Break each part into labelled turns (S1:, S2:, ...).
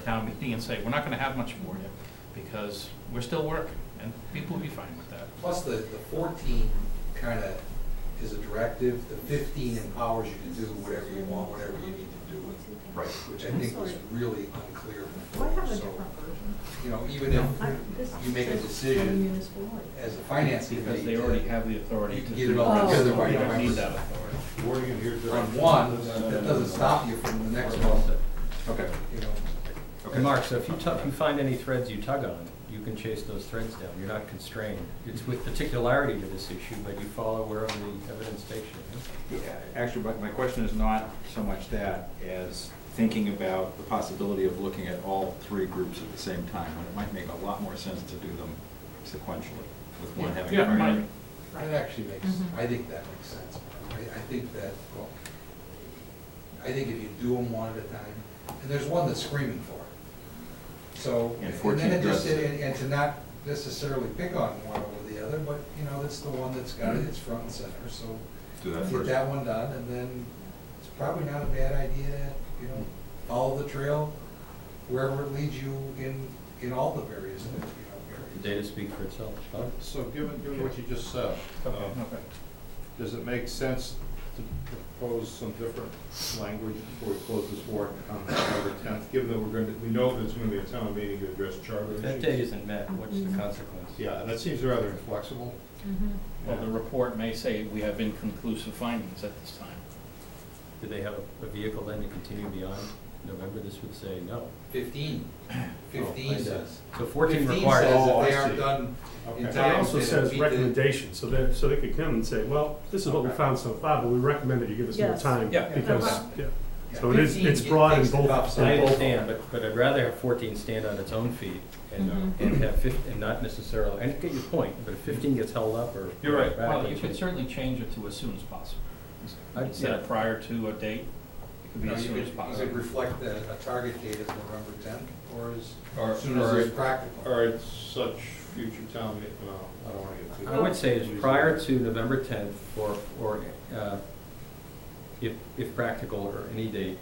S1: town meeting and say, we're not gonna have much for you, because we're still working, and people will be fine with that.
S2: Plus, the, the fourteen kind of is a directive, the fifteen empowers you to do whatever you want, whatever you need to do with,
S1: Right.
S2: which I think was really unclear
S3: Do I have
S2: before,
S3: a
S2: so,
S3: different version?
S2: you know, even if,
S3: I- this
S2: you make a
S3: says
S2: decision
S3: from municipal order.
S2: as a finance
S1: Because
S2: committee,
S1: they already
S2: to-
S1: have the authority
S2: You
S1: to
S2: can get
S1: do
S2: it
S1: it.
S2: all
S3: together by
S1: We don't need
S2: November.
S1: that authority.
S4: Wording it here. Joe.
S2: on one,
S4: No, no,
S2: that
S4: no,
S2: doesn't
S4: no.
S2: stop you from the next one,
S5: Okay.
S2: you know.
S5: And Mark, so if you tu- if you find any threads you tug on, you can chase those threads down. You're not constrained. It's
S2: Mm-hmm.
S5: with particularity to this issue, but you follow wherever the evidence takes you.
S4: Yeah, Actually, but my question is not so much that as thinking about the possibility of looking at all three groups at the same time, when it might make a lot more sense to do them sequentially, with one having
S1: Yeah, it might.
S4: priority.
S2: That actually makes,
S3: Mhm.
S2: I think that makes sense. I, I think that, well, I think if you do them one at a time, and there's one that's screaming for it. So,
S4: And
S2: and
S4: 14
S2: then it just,
S4: does.
S2: and and to not necessarily pick on one over the other, but, you know, it's the one that's got it, it's front and center, so
S4: Do that
S2: get
S4: first.
S2: that one done, and then it's probably not a bad idea, you know, follow the trail wherever it leads you in, in all the various, you know, areas.
S5: The data speak for itself.
S2: Oh.
S6: So given, given what you just said,
S1: Okay,
S6: um, does it make sense to propose some different language before we close this warrant on November tenth? Given that we're going to, we know there's going to be a town meeting to address charter issues.
S5: That date isn't
S2: Mm-hmm.
S5: met, what's the consequence?
S6: Yeah, that seems rather inflexible.
S3: Mhm.
S1: Well, the report may say we have inconclusive findings at this time.
S5: Do they have a- a vehicle then to continue beyond November? This would say no.
S2: Fifteen.
S5: Oh, I
S2: Fifteen
S5: see.
S2: says.
S5: So fourteen
S2: says
S5: requires,
S2: if they
S6: Oh, I
S2: aren't
S6: see.
S2: done in
S6: Okay.
S2: time.
S7: It also
S2: they don't
S7: says
S2: meet the-
S7: recommendations, so that, so they could come and say, well, this is what we
S6: Okay.
S7: found so far, but we recommend that you give us more
S3: Yes.
S7: time.
S1: Yeah.
S7: Because,
S2: Okay.
S7: yeah,
S2: Yeah,
S7: so it is,
S2: 15
S7: it's
S2: it
S7: broad in
S2: takes the
S7: both.
S2: cups
S7: in
S5: I
S7: both.
S5: understand, but, but I'd rather have fourteen stand on its own feet and, uh,
S2: Mm-hmm.
S3: Mhm.
S5: and have fif, and not necessarily, and I get your point, but if fifteen gets held up or. back,
S1: Well,
S5: it
S1: you could
S5: changes.
S1: certainly change it to as soon as possible.
S5: I'd-
S1: Instead
S5: yeah.
S1: of prior to a date, it could be
S2: No,
S1: as
S2: you
S1: soon
S2: could,
S1: as
S2: you could
S1: possible.
S2: reflect that a target date is November tenth, or as
S6: Or,
S2: soon as
S6: or,
S2: it's practical.
S6: or at such future town meeting, well, I don't want to get too.
S5: I would say is prior to November tenth or, or, uh, if, if practical or any date.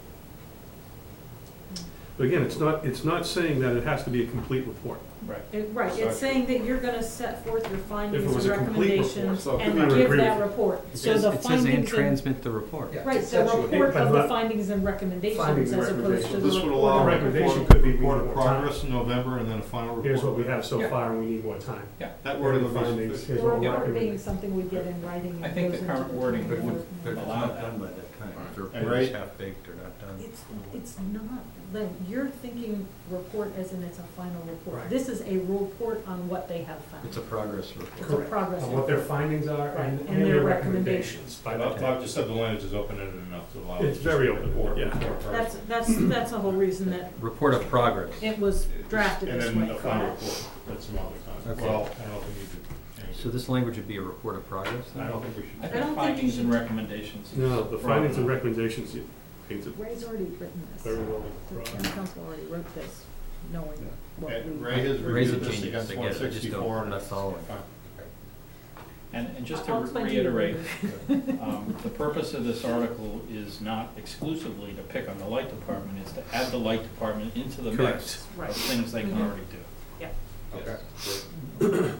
S7: But again, it's not, it's not saying that it has to be a complete report.
S1: Right.
S3: It- Right, it's saying that you're gonna set forth your
S7: If it
S3: findings
S7: was
S3: and
S7: a complete report,
S3: recommendations
S7: so it could
S3: and
S7: be an
S3: give
S7: agreement.
S3: that report.
S5: It
S3: So
S5: says-
S3: the
S5: It says and
S3: findings and,
S5: transmit the report.
S2: Yeah.
S3: right, the
S2: That's what-
S3: report
S7: But
S3: of the
S7: not-
S3: findings and recommendations
S7: Findings and
S3: as opposed to
S7: recommendations.
S3: the
S6: This would allow
S3: report.
S7: The
S6: a
S7: recommendation
S6: report-
S7: could be
S6: report
S7: more
S6: of
S7: time.
S6: progress in November and then a final report.
S7: Here's what we have so
S1: Yeah.
S7: far, and we need more time.
S1: Yeah,
S6: That wording
S7: Here are the
S6: would
S7: findings,
S6: be.
S7: here's
S3: Or
S7: what we
S3: word being
S7: recommend.
S3: something we get in writing.
S1: I
S3: and
S1: think
S3: goes
S1: the
S3: into
S1: current wording
S3: final
S1: would-
S3: report.
S5: But if it's
S1: Allow
S5: not
S1: that.
S5: done by that time, if the
S6: Right.
S5: report is
S6: Right.
S5: half-baked or not done.
S3: It's, it's not, the, you're thinking report as in it's a final report.
S7: Right.
S3: This is a report on what they have found.
S5: It's a progress
S3: It's a
S5: report.
S7: Correct.
S3: progress
S7: On what their findings are and, and their recommendations by that time.
S6: Bob just said the language is open-ended enough to allow.
S7: It's
S6: us
S7: very
S6: to
S7: open,
S6: report-
S7: yeah.
S6: report first.
S3: That's, that's, that's the whole reason that
S5: Report of progress.
S3: it was drafted this
S6: And then
S3: way.
S6: the final report, that's some other time.
S5: Okay.
S6: Well, I don't know if we need to change it.
S5: So this language would be a report of progress
S6: I
S5: then?
S6: don't think we
S1: I
S6: should.
S3: don't think
S1: think
S3: you
S1: findings and
S3: should-
S1: recommendations. is
S7: No, the findings and
S1: broad enough.
S7: recommendations, you, it's
S3: Ray's already written this.
S7: very well.
S3: The town council already wrote this, knowing what
S6: Okay,
S3: we.
S6: Eh, Ray has
S5: Raise
S6: reviewed
S5: it
S6: this
S5: changes,
S6: against
S5: I
S6: one
S5: get it, I just
S6: sixty-four
S5: don't, I'm
S6: and
S5: not
S6: it's.
S5: following.
S6: fine.
S1: And, and just to
S3: I'll explain to you
S1: reiterate,
S3: later.
S1: Um, The purpose of this article is not exclusively to pick on the light department, it's to add the light department into the mix of
S3: Right.
S1: things they can
S3: Mhm.
S1: already do.
S6: Okay.
S5: Do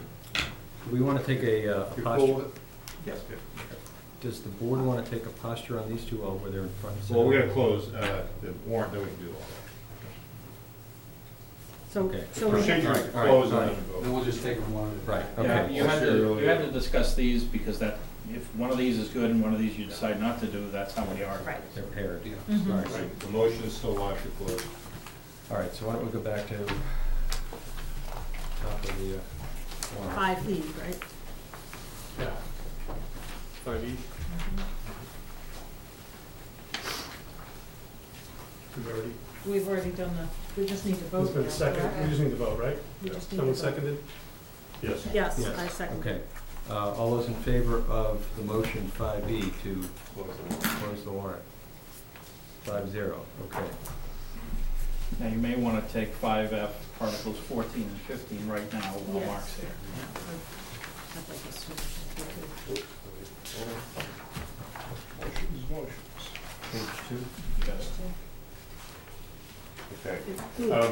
S5: we want to take a uh,
S6: You're cool
S5: posture?
S6: with it?
S4: Yes.
S5: Does the board want to take a posture on these two while we're there in front? of us?
S6: Well, we gotta close, uh, the warrant, then we can do all
S3: So,
S5: Okay.
S3: so
S6: that.
S3: we
S6: Procedure,
S3: have,
S6: is to
S5: all right,
S6: close
S5: all
S6: and
S5: right.
S6: then vote.
S2: Then we'll just take them one at a
S5: Right,
S2: time.
S1: Yeah,
S5: okay.
S1: you had to,
S6: Sure.
S1: you had to discuss these, because that, if one of these is good and one of these you decide not to do, that's how many are.
S3: right.
S5: They're paired.
S2: Yeah.
S5: All
S3: Mhm.
S5: right.
S6: Right, the motion is still live to close.
S5: All right, so why don't we go back to top of the uh, warrant?
S3: Five E, right?
S7: Yeah. Five each. We've already,
S3: We've already done the, we just need to vote.
S7: there's been
S3: now,
S7: a second,
S3: correct?
S7: we just need to vote, right?
S3: We just need to
S7: Someone
S3: vote.
S7: seconded?
S6: Yes.
S3: Yes,
S5: Yes.
S3: I second.
S5: Okay, uh, all those in favor of the motion five E to
S6: Close the warrant.
S5: close the warrant? Five zero, okay.
S1: Now, you may wanna take five F, Articles fourteen and fifteen right now, while
S3: Yes.
S1: Mark's here.
S3: I'd like to switch.
S6: Motion's motions.
S5: Page two.
S1: You got it?
S6: Okay.
S3: It's-
S6: Uh,